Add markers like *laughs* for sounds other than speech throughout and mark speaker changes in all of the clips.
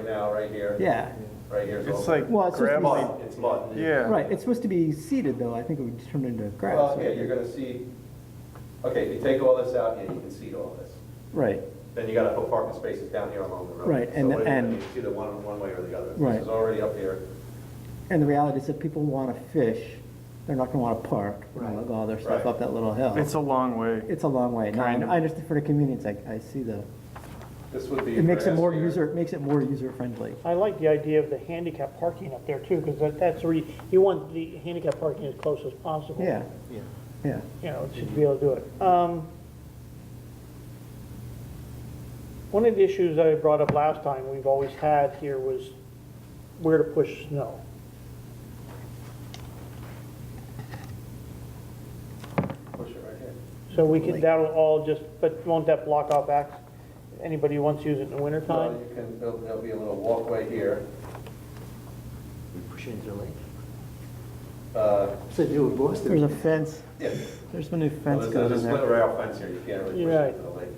Speaker 1: Right now, right here.
Speaker 2: Yeah,
Speaker 1: Right here is
Speaker 3: It's
Speaker 1: open.
Speaker 3: like
Speaker 2: Well, it's just
Speaker 3: gravel.
Speaker 2: like-
Speaker 1: Mud, it's mud.
Speaker 3: Yeah.
Speaker 2: right, it's supposed to be seeded though, I think it would turn into grass.
Speaker 1: Well, yeah,
Speaker 2: right?
Speaker 1: you're gonna see, okay, if you take all this out, yeah, you can see all this.
Speaker 2: Right,
Speaker 1: Then you gotta put parking spaces down here along the road.
Speaker 2: Right, and-
Speaker 1: So what are you gonna
Speaker 2: and-
Speaker 1: do? It's either one, one way or the other.
Speaker 2: Right.
Speaker 1: This is already up here.
Speaker 2: and the reality is if people want to fish, they're not going to want to park, they're going to lug all their stuff
Speaker 1: Right.
Speaker 2: up that little hill.
Speaker 3: It's a long way.
Speaker 2: It's a long way, no, I
Speaker 3: Kind of.
Speaker 2: I understand for the convenience, I, I see the,
Speaker 1: This would be.
Speaker 2: it makes it
Speaker 1: grass
Speaker 2: more
Speaker 1: here.
Speaker 2: user, it makes it more user friendly.
Speaker 4: I like the idea of the handicap parking up there too, because that's where you, you want the handicap parking as close as possible.
Speaker 2: Yeah, yeah,
Speaker 4: You know, to be able to do it. Um, One of the issues that I brought up last time, we've always had here was where to push snow.
Speaker 1: Push it right here.
Speaker 4: So we can, that'll all just, but won't that block off access? Anybody who wants to use it in the
Speaker 1: Well,
Speaker 4: wintertime?
Speaker 1: you can, there'll, there'll be a little walkway here.
Speaker 5: We push into the lake.
Speaker 1: Uh,
Speaker 5: So do in
Speaker 2: there's
Speaker 5: Boston.
Speaker 2: a fence,
Speaker 1: yeah.
Speaker 2: there's a new
Speaker 1: Well,
Speaker 2: fence
Speaker 1: There's
Speaker 2: goes
Speaker 1: there's a
Speaker 2: in
Speaker 1: split
Speaker 2: there.
Speaker 1: rail fence here, you can't really push
Speaker 4: You're
Speaker 1: it
Speaker 4: right.
Speaker 1: to the lake.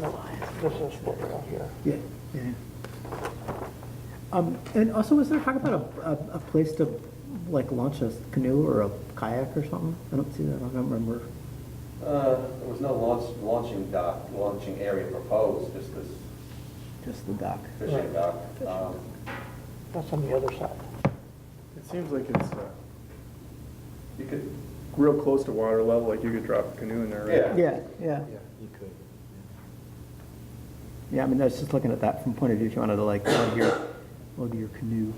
Speaker 4: No, This is what we're out here.
Speaker 2: Yeah, yeah. Um, and also, was there talk about a, a, a place to like launch a canoe or a kayak or something? I don't see that, I don't remember.
Speaker 1: Uh, there was no launch, launching dock, launching area proposed, just this
Speaker 2: Just the dock.
Speaker 1: fishing
Speaker 4: Right.
Speaker 1: dock. Um,
Speaker 4: That's on the other side.
Speaker 3: It seems like it's uh,
Speaker 1: You could,
Speaker 3: real close to water level, like you could drop a canoe in there,
Speaker 1: yeah.
Speaker 3: right?
Speaker 2: Yeah, yeah,
Speaker 5: Yeah, you could.
Speaker 2: yeah, I mean, I was just looking at that from point of view, if you wanted to like load your, load your canoe.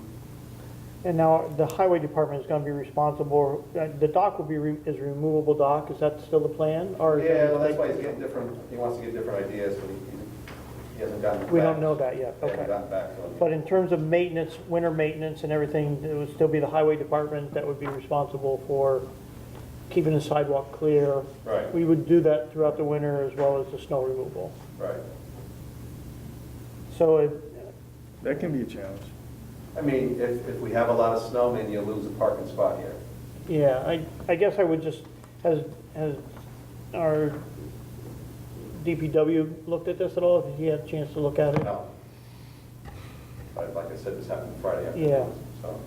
Speaker 4: And now the highway department is going to be responsible, uh, the dock will be, re- is removable dock, is that still the plan? Or is
Speaker 1: Yeah, well, that's
Speaker 4: that-
Speaker 1: why he's getting different, he wants to get different ideas, but he, he hasn't gotten back.
Speaker 4: We don't know that yet,
Speaker 1: He hasn't
Speaker 4: okay.
Speaker 1: gotten back to him.
Speaker 4: But in terms of maintenance, winter maintenance and everything, it would still be the highway department that would be responsible for keeping the sidewalk clear.
Speaker 1: Right.
Speaker 4: We would do that throughout the winter as well as the snow removal.
Speaker 1: Right.
Speaker 4: So it-
Speaker 3: That can be a challenge.
Speaker 1: I mean, if, if we have a lot of snow, maybe you'll lose a parking spot here.
Speaker 4: Yeah, I, I guess I would just, has, has our DPW looked at this at all? Has he had a chance to look at it?
Speaker 1: No. But like I said, this happened Friday
Speaker 4: Yeah.
Speaker 1: afternoon, so.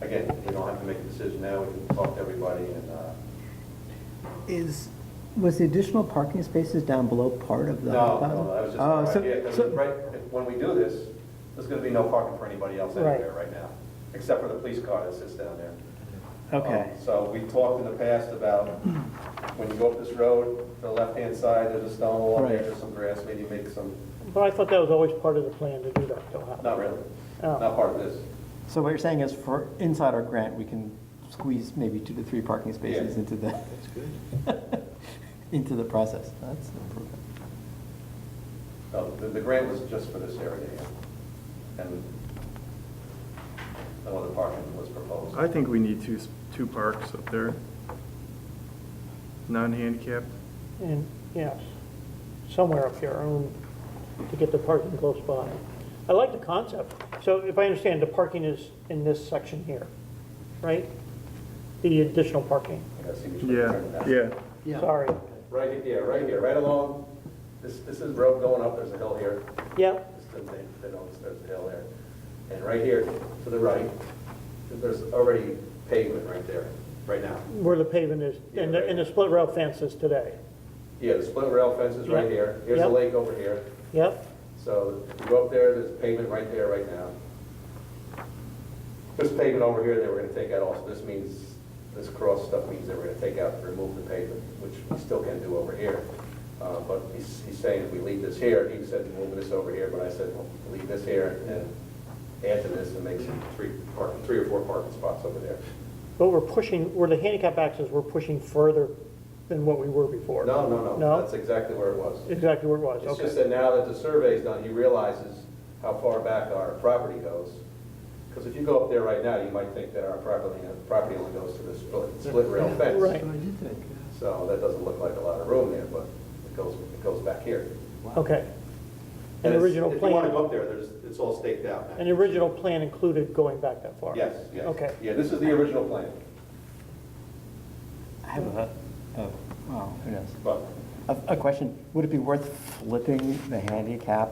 Speaker 1: Again, we don't have to make a decision now, we can talk to everybody and, uh,
Speaker 2: Is, was the additional parking spaces down below part of the?
Speaker 1: no,
Speaker 2: hot dog?
Speaker 1: no, that was just
Speaker 2: Oh,
Speaker 1: my
Speaker 2: so-
Speaker 1: idea, 'cause
Speaker 2: so-
Speaker 1: right, if- when we do this, there's gonna be no parking for anybody else
Speaker 4: Right.
Speaker 1: anywhere right now, except for the police car that sits down there.
Speaker 2: Okay,
Speaker 1: Um, So we talked in the past about when you go up this road, to the left-hand side, there's a stone wall, there,
Speaker 2: Right.
Speaker 1: there's some grass, maybe make some,
Speaker 4: But I thought that was always part of the plan to do that, though, huh?
Speaker 1: not really,
Speaker 4: Oh.
Speaker 1: not part of this.
Speaker 2: so what you're saying is for inside our grant, we can squeeze maybe two to three parking spaces
Speaker 1: Yeah.
Speaker 2: into the,
Speaker 5: That's good.
Speaker 2: *laughs* into the process, that's an improvement.
Speaker 1: No, the, the grant was just for this area, yeah. and no other parking was proposed.
Speaker 3: I think we need two, s- two parks up there. Non-handicapped.
Speaker 4: And, yes, somewhere up here, um, to get the parking close by. I like the concept. So if I understand, the parking is in this section here, right? The additional parking,
Speaker 1: I gotta see which way to
Speaker 3: Yeah,
Speaker 1: turn that.
Speaker 3: yeah.
Speaker 4: sorry.
Speaker 1: Right, he- yeah, right here, right along, this, this is road going up, there's a hill here,
Speaker 4: Yeah,
Speaker 1: this, is- they, they don't, there's a hill there. And right here, to the right, there's already pavement right there, right now.
Speaker 4: where the pavement is, and the, and the split rail fence is today.
Speaker 1: Yeah, the split rail fence is right
Speaker 4: Yeah.
Speaker 1: here, here's the
Speaker 4: Yeah.
Speaker 1: lake over here,
Speaker 4: Yep,
Speaker 1: so if you go up there, there's pavement right there right now. This pavement over here, they were gonna take out also, this means, this cross stuff means they were gonna take out, remove the pavement, which we still can do over here. Uh, but he's, he's saying if we leave this here, he said move this over here, but I said, well, leave this here and add to this and make some three, park, three or four parking spots over there.
Speaker 4: but we're pushing, where the handicap access, we're pushing further than what we were before.
Speaker 1: No, no, no,
Speaker 4: No?
Speaker 1: that's exactly where it was.
Speaker 4: Exactly where it was,
Speaker 1: It's just that
Speaker 4: okay.
Speaker 1: now that the survey's done, he realizes how far back our property goes. Because if you go up there right now, you might think that our property, property only goes to the split, split rail fence.
Speaker 4: Right.
Speaker 5: So I did think, yeah.
Speaker 1: So that doesn't look like a lot of room there, but it goes, it goes back here.
Speaker 4: Okay. And the
Speaker 1: it's-
Speaker 4: original
Speaker 1: If you want to
Speaker 4: plan,
Speaker 1: go up there, there's, it's all staked out now.
Speaker 4: and the original plan included going back that far?
Speaker 1: Yes, yes.
Speaker 4: Okay.
Speaker 1: Yeah, this is the original plan,
Speaker 2: I have a, oh, wow, who knows?
Speaker 1: but
Speaker 2: A a question, would it be worth flipping the handicap